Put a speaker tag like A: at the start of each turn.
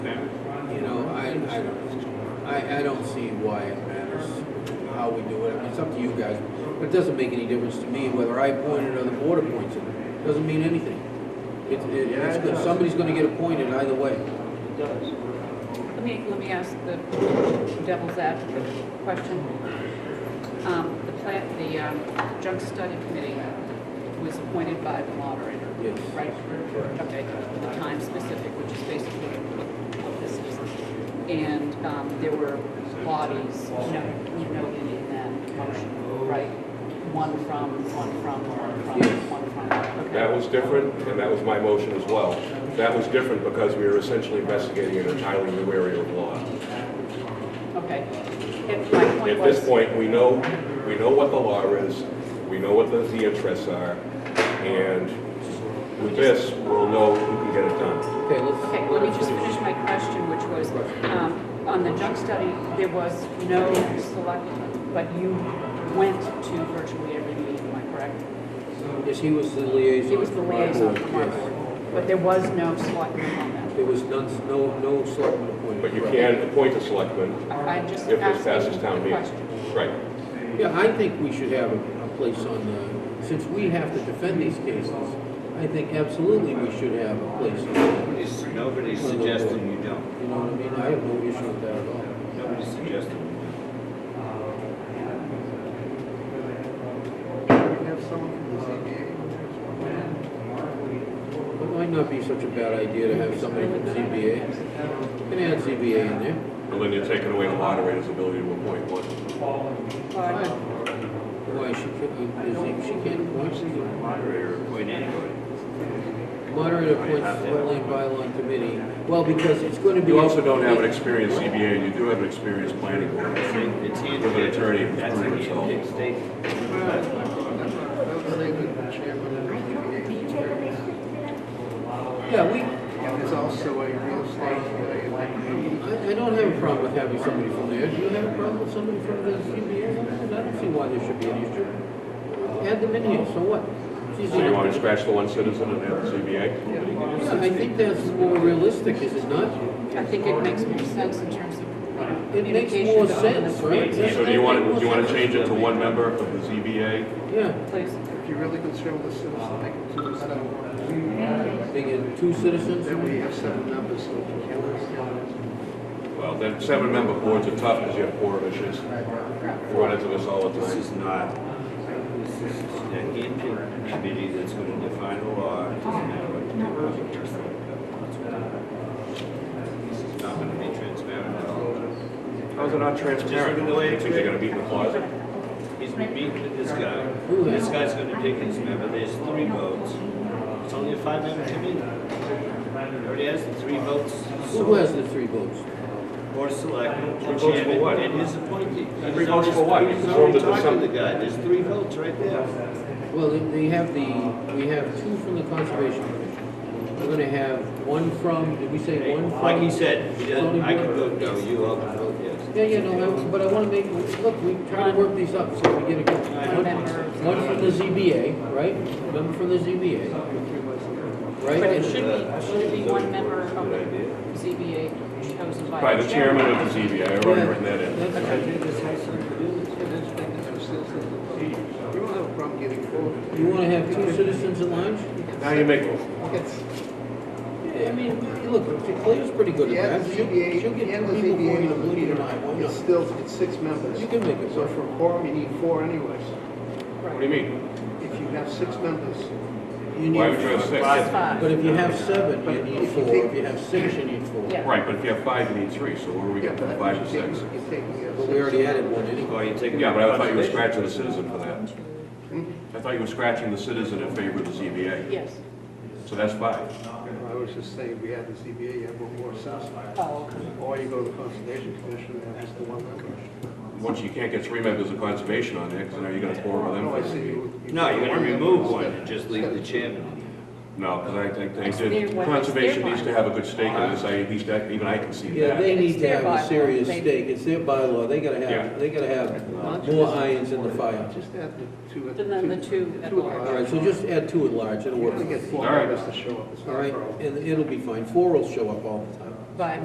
A: why it matters, how we do it, I mean, it's up to you guys. But it doesn't make any difference to me whether I appoint it or the board appoints it, doesn't mean anything. It, it,
B: Yeah,
A: it's
B: it
A: good,
B: does.
A: somebody's gonna get appointed either way.
B: It does.
C: Let me, let me ask the devil's advocate question. Um, The plant, the um, junk study committee was appointed by the moderator,
A: Yes.
C: right?
A: Correct.
C: Okay, the time specific, which is basically what this is. And um, there were bodies, you know, you noted in that motion, right? One from, one from, one from, one from. okay.
D: That was different, and that was my motion as well. That was different because we were essentially investigating an entirely new area of law.
C: Okay. And my point
D: At
C: was.
D: this point, we know, we know what the law is, we know what the, the interests are, and with this, we'll know who can get it done.
A: Okay, let's.
C: Okay, let me just finish my question, which was, um, on the junk study, there was no select, but you went to virtually every meeting, am I correct?
A: Yes, he was the liaison.
C: He was the
A: for my
C: liaison
A: board,
C: from our
A: yes.
C: board, but there was no selectman on that.
A: There was none, no, no selectmen appointed.
D: But you
A: correct.
D: can appoint a selectman
C: I- I'm just
D: if this passes
C: asking
D: town
C: the
D: meeting.
C: question.
D: Right.
A: Yeah, I think we should have a, a place on the, since we have to defend these cases, I think absolutely we should have a place on that.
E: Nobody's, nobody's suggesting you don't.
A: You know what I mean? I have no issue with that at all.
E: Nobody's suggesting you don't.
F: We have someone from the ZBA.
A: It might not be such a bad idea to have somebody from ZBA. You can add ZBA in there.
D: And then you're taking away the moderator's ability to appoint one.
A: Fine. Why, she can't, she can't appoint someone.
E: Moderator appoint anybody.
A: Moderator appoints the wetland bylaw committee. Well, because it's going to be.
D: You also don't have an experienced CBA, and you do have an experienced planning board.
E: It's in- it's in-
D: With an attorney who's
E: That's a
D: proven himself.
E: handpicked statement.
F: Those labeled the chairman of the ZBA.
A: Yeah, we, I,
F: And there's also a real estate lawyer.
A: I don't have a problem with having somebody from there. Do you have a problem with somebody from the ZBA? I don't see why there should be an issue. Add them in here, so what? It's easy
D: So you
A: to-
D: want to scratch the one citizen and add the CBA?
A: Yeah, I think that's more realistic, is it not?
C: I think it makes more sense in terms of
A: It makes
C: communication.
A: more
C: to all
A: sense,
C: the-
A: right?
D: So do you want to, do you want to change it to one member of the ZBA?
A: Yeah,
C: Please.
F: If you're really concerned with the citizen, make it two seven.
A: they get two citizens.
F: Then we have seven numbers, so if you can't.
D: Well, then seven-member boards are tough because you have four issues. You run into this all the
E: This
D: time.
E: is not, this is a handpicked committee that's going to define the law. It doesn't matter what the public hearing is about. This is not going to be transparent at all.
D: How's it not transparent? You think they're going to be in the closet?
E: He's been meeting with this guy.
A: Who is?
E: This guy's going to pick his member. There's three votes. It's only a five-member committee. Already has the three votes.
A: Who has the three votes?
E: Board of Selectmen,
D: Three
E: the
D: votes for what?
E: chairman, and his appointee.
D: Three votes for what?
E: He's
D: Formed
E: already
D: it to
E: talked to the
D: some-
E: guy. There's three votes right there.
A: Well, they- they have the, we have two from the Conservation Commission. We're gonna have one from, did we say one from?
E: Like he said, he doesn't, I can
A: Zoning
E: vote
A: board?
E: no, you all can vote yes.
A: Yeah, yeah, no, I- but I wanna make, look, we try to work these up so we get a, one, one from the ZBA, right? Member from the ZBA, right?
C: But it
A: And-
C: should be, should it be one member of
E: Good idea.
C: the ZBA chosen by.
D: By the chairman of the ZBA, I've already written that in.
A: That's right.
F: We don't have a problem getting voted.
A: You wanna have two citizens at large?
D: Now you make them.
F: It's-
A: Yeah, I mean, look, Claire's pretty good
F: Yeah,
A: at
F: the
A: that. She'll,
F: ZBA,
A: she'll get
F: and the
A: people going to Blue
F: ZBA,
A: tonight, why
F: it's
A: not?
F: still, it's six members.
A: You can make it
F: So
A: work.
F: for quorum, you need four anyways.
D: What do you mean?
F: If you have six members,
A: You need
D: Why would you have six?
C: It's five.
A: But if you have seven, you need four, if you have six, you need four.
C: Yeah.
D: Right, but if you have five, you need three, so where are we getting from five to six?
F: you're taking. a-
A: But we already added one anyway.
E: Or you take.
D: Yeah, but I thought you were scratching the citizen for that. I thought you were scratching the citizen in favor of the ZBA,
C: Yes.
D: so that's five.
F: I was just saying, we had the ZBA, you have one more citizen.
C: Oh, okay.
F: Or you go to the Conservation Commission and ask the one member.
D: Once you can't get three members of conservation on there, because now you're going to four of them.
F: No, I see
D: for
F: you.
E: No, you're gonna remove one and just leave the chairman.
D: No, because I think
C: It's
D: they
C: their-
D: did,
C: what- it's
D: conservation
C: their
D: needs to
C: bylaw.
D: have a good stake in this, I, at least I- even I can see
A: Yeah,
D: that.
A: they need
C: It's
A: to
C: their
A: have
C: bylaw.
A: a serious
C: They-
A: stake, it's their bylaw, they gotta
D: Yeah.
A: have, they gotta have more irons in the fire.
F: Just add the two.
C: And then the two at
F: Two at
C: large.
A: All right, so just add two at large, it'll
F: We're
A: work.
F: gonna get four
D: All right.
F: members to show up, it's
A: All
F: not a
A: right,
F: problem.
A: and it'll be fine, four will show up all the time.
C: By